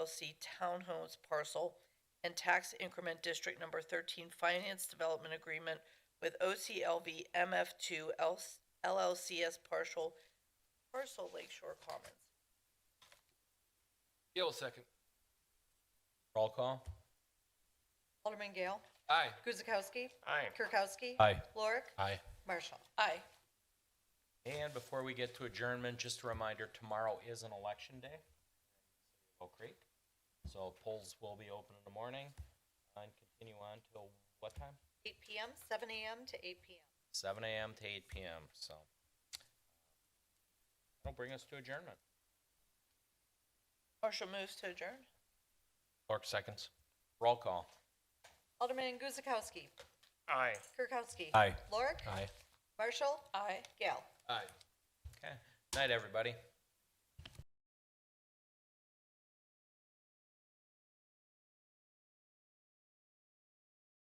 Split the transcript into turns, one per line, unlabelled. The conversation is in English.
LLC Townhomes Parcel and Tax Increment District Number 13 Finance Development Agreement with OCLV MF2 LLCS Partial, Parcel Lakeshore Commons.
Gale second.
Roll call.
Alderman Gale.
Aye.
Guzekowski.
Aye.
Kirkowski.
Aye.
Lorik.
Aye.
Marshall.
Aye.
And before we get to adjournment, just a reminder, tomorrow is an election day. in Oak Creek. So polls will be open in the morning and continue on till what time?
8 PM, 7 AM to 8 PM.
Seven AM to eight PM, so. That'll bring us to adjournment.
Marshall moves to adjourn.
Clark seconds. Roll call.
Alderman Guzekowski.
Aye.
Kirkowski.
Aye.
Lorik.
Aye.
Marshall.
Aye.
Gale.
Aye.
Okay. Night, everybody.